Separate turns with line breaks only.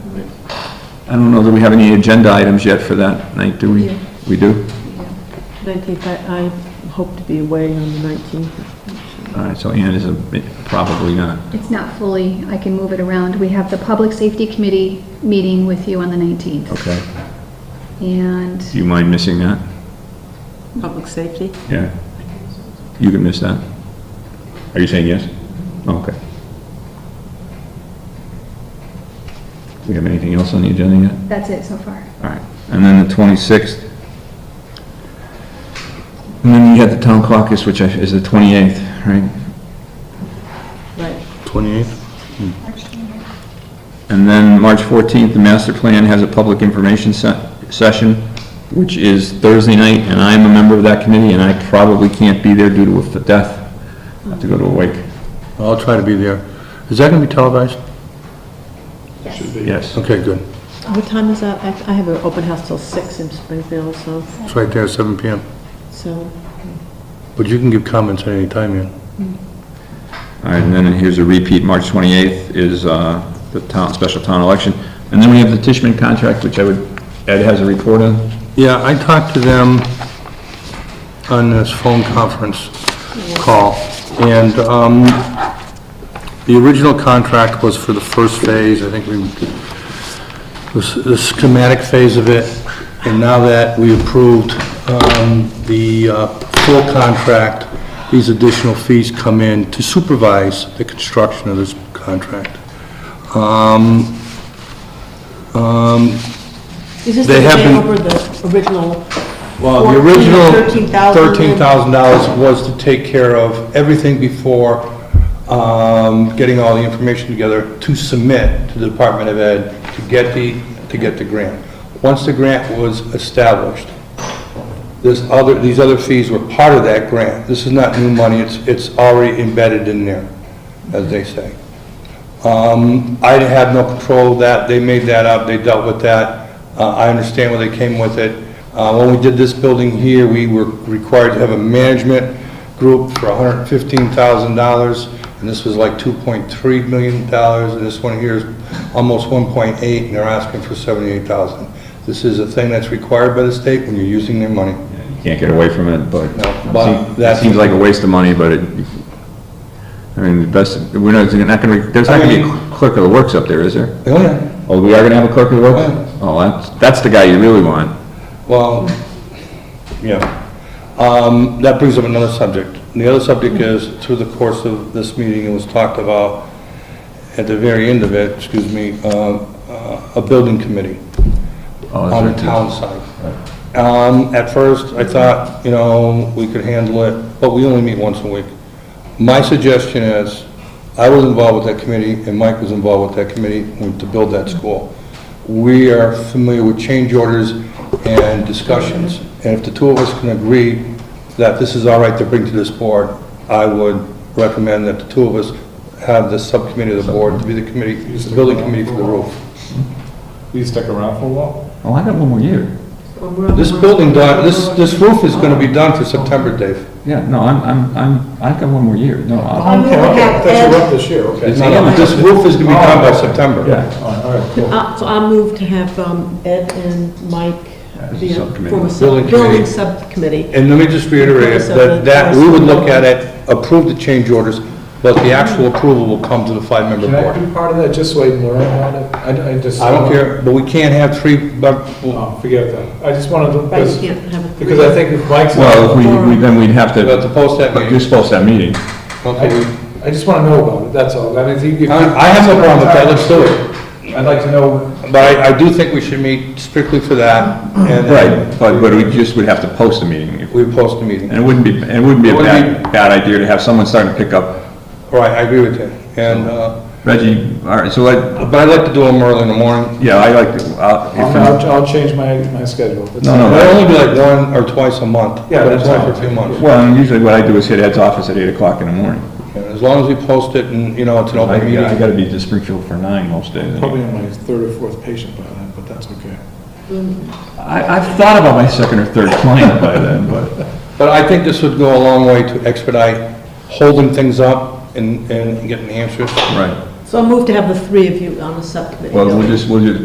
I don't know that we have any agenda items yet for that night, do we?
Yeah.
We do?
19th, I, I hope to be away on the 19th.
All right, so Ann is a- probably not.
It's not fully, I can move it around. We have the Public Safety Committee meeting with you on the 19th.
Okay.
And
Do you mind missing that?
Public safety?
Yeah. You can miss that. Are you saying yes? Oh, Okay. Do we have anything else on the agenda yet?
that's it so far.
All right. And then the 26th. And then you have the town caucus, which I- is the 28th, right?
Right.
28th?
And then March 14th, the master plan has a public information se- session, which is Thursday night, and I'm a member of that committee, and I probably can't be there due to a f- death. I have to go to a wake.
I'll try to be there. Is that going to be televised?
Yes.
Okay, good.
What time is that? I, I have an open house till 6 in Springfield, so,
It's right there, 7 PM.
so,
But you can give comments at any time, yeah.
All right, and then here's a repeat, March 28th is uh, the town, special town election. And then we have the Tishman contract, which I would, Ed has a report on.
Yeah, I talked to them on this phone conference call, and um, the original contract was for the first phase, I think we, this- the schematic phase of it, and now that we approved um, the uh, full contract, these additional fees come in to supervise the construction of this contract.
is this the
They have
day
been-
over the original?
Well, the
Fourteen,
original
$13,000.
$13,000 was to take care of everything before um, getting all the information together to submit to the Department of Ed to get the, to get the grant. Once the grant was established, this other, these other fees were part of that grant. This is not new money, it's, it's already embedded in there, as they say. Um, I have no control of that, they made that up, they dealt with that, Uh, I understand where they came with it. Uh, When we did this building here, we were required to have a management group for $115,000, and this was like $2.3 million, and this one here is almost 1.8, and they're asking for $78,000. This is a thing that's required by the state when you're using their money.
You Can't get away from it, but
No, but
that
that's-
seems like a waste of money, but it, I mean, the best, we're not, you're not gonna, there's not gonna be a clerk of the works up there, is there?
Oh, yeah.
Oh, we are gonna have a clerk of the works?
Yeah.
Oh, that's, that's the guy you really want.
Well, yeah. Um, That brings up another subject. And the other subject is, through the course of this meeting, it was talked about, at the very end of it, excuse me, uh, uh, a building committee
Oh, that's
on
right.
the town side. Um, At first, I thought, you know, we could handle it, but we only meet once a week. My suggestion is, I was involved with that committee, and Mike was involved with that committee when- to build that school. We are familiar with change orders and discussions, and if the two of us can agree that this is all right to bring to this board, I would recommend that the two of us have the subcommittee of the board to be the committee, the building committee for the roof.
You stuck around for a while?
Oh, I got one more year.
This building, done. this, this roof is gonna be done for September, Dave.
Yeah, no, I'm, I'm, I'm, I've got one more year, no, I-
Okay, okay, that's rough this year, okay.
No, no,
This roof is gonna be done by September.
yeah.
All right, all right, cool.
Uh, So I move to have um, Ed and Mike
As a
be a,
subcommittee.
form a sub-
Building committee.
building subcommittee.
And let me just reiterate, that, that, we would look at it, approve the change orders, but the actual approval will come to the five-member
Can I
board.
be part of that, just so I learn about it? I, I just.
I don't care, but we can't have three, mem-
Oh, forget that. I just wanted to,
Right, you
because,
can't have a.
because I think if Mike's.
Well, if we, we- then we'd have
we'll have to
to,
post that
you're
meeting.
supposed to have a meeting.
I, I just want to know about it, that's all. I mean, if you.
I I have no problem with that, let's do it.
I'd like to know,
But I, I do think we should meet strictly for that, and
Right,
then
but, but we just would have to post a meeting. if-
we post the meeting.
And it wouldn't be, and it wouldn't be a
It wouldn't
bad, bad idea to have someone starting to pick up.
Right, I agree with you. And, uh,
Reggie, all right, so I,
but I'd like to do them early in the morning.
yeah, I like, to- I'll-
I'll,
if I'm-
I'll- I'll change my, my schedule. It's-
No, no.
It'll only be like one or twice a month.
Yeah,
but
that's
it's only
fine.
for two months.
well, and usually what I do is hit Ed's office at eight o'clock in the morning.
And As long as we post it and, you know, it's an
I
open
I
meeting.
gotta be to Springfield for nine most days.
Probably on my third or fourth patient by then, but that's okay.
I, I've thought about my second or third client by then, but,
But I think this would go a long way to expedite holding things up and, and getting answers.
right.
So I move to have the three of you on the subcommittee.
Well, we'll just, we'll just,